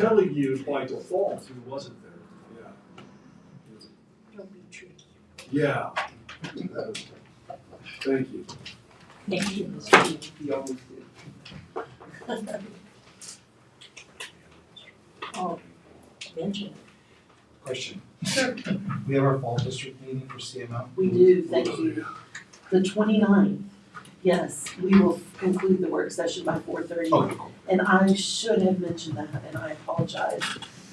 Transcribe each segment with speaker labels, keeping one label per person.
Speaker 1: telling you by default who wasn't there.
Speaker 2: Don't be tricky.
Speaker 1: Yeah. Yeah. Thank you.
Speaker 2: Thank you, Mr. Chairman.
Speaker 3: He always did.
Speaker 2: Oh, Benjamin.
Speaker 4: Question,
Speaker 2: Sure.
Speaker 4: we have our fall district meeting for CML.
Speaker 2: We do, thank you. The 29th. yes, we will conclude the work session by four thirty.
Speaker 4: Okay, cool.
Speaker 2: And I should have mentioned that, and I apologize.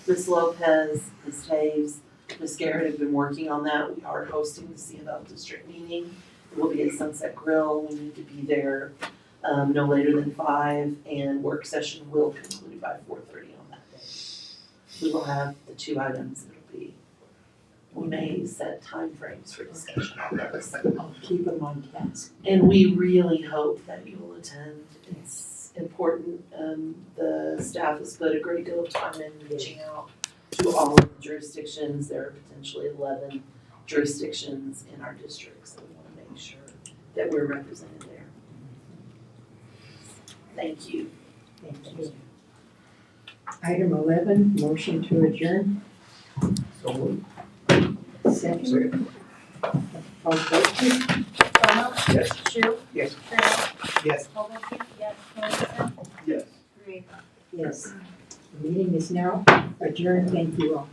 Speaker 2: Ms. Lopez, Ms. Taves, Ms. Garrett have been working on that. We are hosting the CNO district meeting. It will be at Sunset Grill. We need to be there um, no later than five, and work session will conclude by four thirty on that day. We will have the two items. It'll be, we may set timeframes for discussion on those.
Speaker 3: I'll keep him on task.
Speaker 2: And we really hope that you will attend. It's important. Um, the staff has put a great deal of time in reaching out to all of the jurisdictions. There are potentially eleven jurisdictions in our district, so we want to make sure that we're represented there. Thank you.
Speaker 3: Thank you. Item eleven, motion to adjourn. So Second. All vote, please.
Speaker 5: Bono?
Speaker 4: Yes.
Speaker 5: Shu?
Speaker 4: Yes.
Speaker 5: Carol?
Speaker 4: Yes.
Speaker 5: Holden? Yes. Melissa?
Speaker 1: Yes.
Speaker 5: Green.
Speaker 3: Yes. The meeting is now adjourned. Thank you all.